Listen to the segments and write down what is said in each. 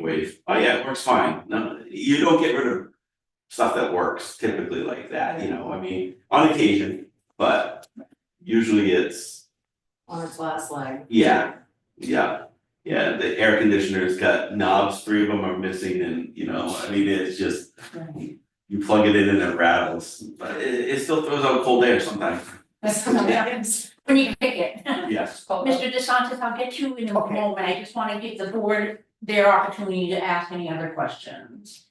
wave, oh yeah, it works fine, no, you don't get rid of. Stuff that works typically like that, you know, I mean, on occasion, but usually it's, on a flat slide. yeah, yeah. Yeah, the air conditioner's got knobs, three of them are missing and, you know, I mean, it's just. You plug it in and it rattles, but it it still throws out cold air sometimes, Sometimes. when you pick it. yes, Mr. DeSantis, I'll get you in a Okay. moment, I just wanna give the board their opportunity to ask any other questions.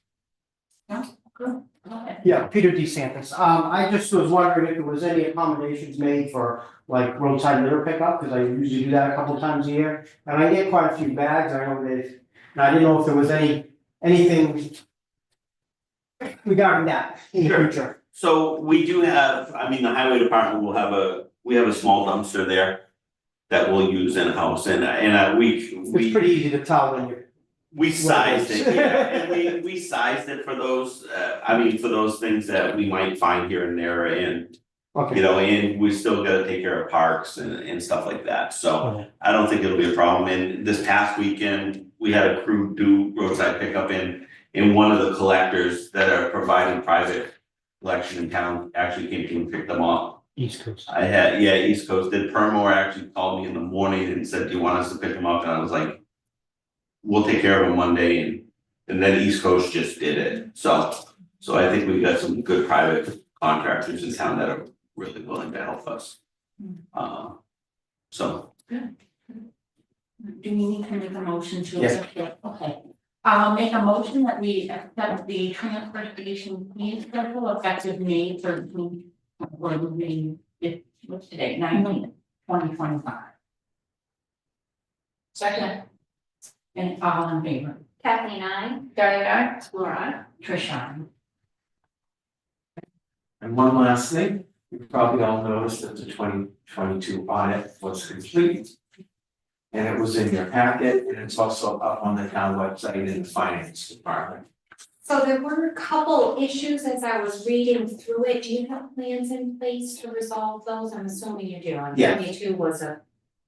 No, good, go ahead. Yeah, Peter DeSantis. Um, I just was wondering if there was any accommodations made for like roadside litter pickup, because I usually do that a couple times a year. And I get quite a few bags, I know that, and I didn't know if there was any, anything regarding that in the Sure. future. So we do have, I mean, the highway department will have a, we have a small dumpster there. That we'll use in-house and and uh, we It's we pretty easy to tell when you're, we sized it, Right. yeah, and we we sized it for those, uh, I mean, for those things that we might find here and there and. You okay. know, and we still gotta take care of parks and and stuff like that, so Okay. I don't think it'll be a problem, and this past weekend, we had a crew do roadside pickup in. And one of the collectors that are providing private collection in town actually came to and picked them up. East Coast. I had, yeah, East Coast, did Permore actually called me in the morning and said, do you want us to pick them up, and I was like. We'll take care of them one day, and, and then East Coast just did it, so, so I think we've got some good private contractors in town that are really willing to help us. Um, so, Do we need to make a motion to? Yes. accept it? Okay. I'll make a motion that we accept the transfer station fee schedule effective May thirteenth. Or May, fif- what's today, nineteenth, twenty twenty five, Second. and all in favor, Kathleen, I, Diane, aye. Laura, Trisha. And one last thing, you probably all noticed that the twenty twenty-two audit was complete. And it was in your packet, and it's also up on the town website in the finance department. so there were a couple issues as I was reading through it, do you have plans in place to resolve those? I'm assuming you do, and Yeah. twenty-two was a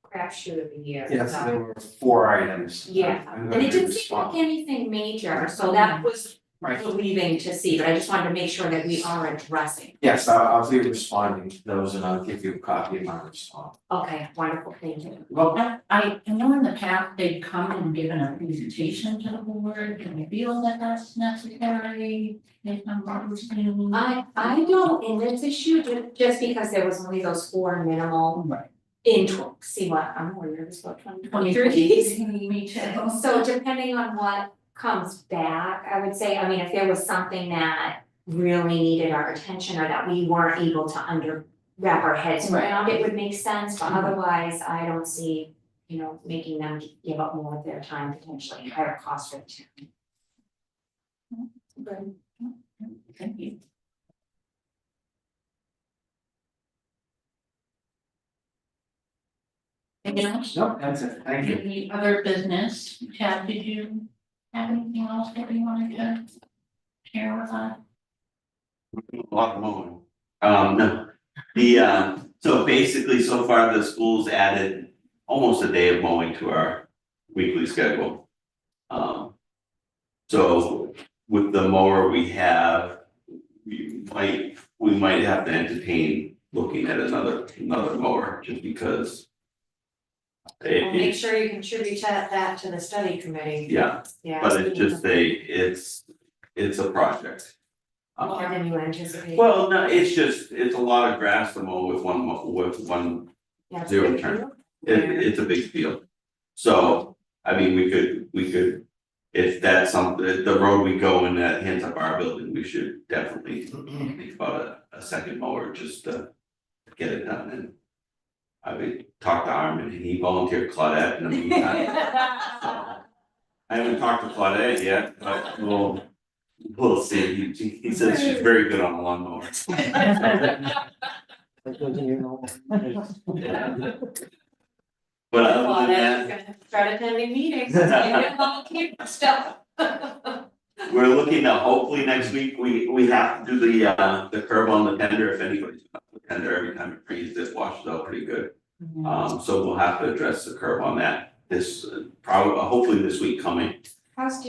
crapshoot of a year, Yes, so- there were four items. Yeah, I'm And gonna it didn't seem respond. like anything major, so that was Right. relieving to see, but I just wanted to make sure that we are addressing. Yes, I'll, I'll be responding to those, and I'll give you a copy of my response. Okay, wonderful, thank you. Well, I, I know in the past they've come and given a presentation to the board, do we feel that that's necessary? If I'm wrong, it's new. I, I don't, in this issue, ju- just because there was only those four minimal Right. in tw- see what, I'm more nervous about twenty Twenty twenty-three. three, me too. So depending on what comes back, I would say, I mean, if there was something that really needed our attention or that we weren't able to under wrap our heads Right. around, it would make sense, but Mhm. Mm-hmm. otherwise, I don't see, you know, making them give up more of their time potentially, and higher cost for the town. Good. Thank you. Anything else? no, that's it, thank you. Any other business? Chad, did you have anything else that you wanted to share with us? lock them over. Um, no, the, uh, so basically, so far, the school's added almost a day of mowing to our weekly schedule. Um, so with the mower we have, we might, we might have to entertain looking at another, another mower, just because. Well, It, make it, sure you contribute that, that to the study committee, yeah, yeah. but it's just a, it's, it's a project. Um, More than you anticipate. well, no, it's just, it's a lot of grass to mow with one, mo- with one, Yeah. zero turn. it, it's a big field. So, I mean, we could, we could, if that's something, the road we go in that hands up our building, we should definitely think about a, a second mower just to get it done and. I mean, talk to Armin and he volunteered Claudette in the meantime. I haven't talked to Claudette yet, but we'll, we'll see. He, he says she's very good on the lawnmower. That doesn't even know. But other than that, Start attending meetings, and get volunteer stuff. we're looking to hopefully next week, we we have to do the uh the curb on the tender, if anybody's on the tender, every time it freezes, it washes out pretty good. Um so we'll have to address the curb on that this uh, probably, hopefully this week coming. How's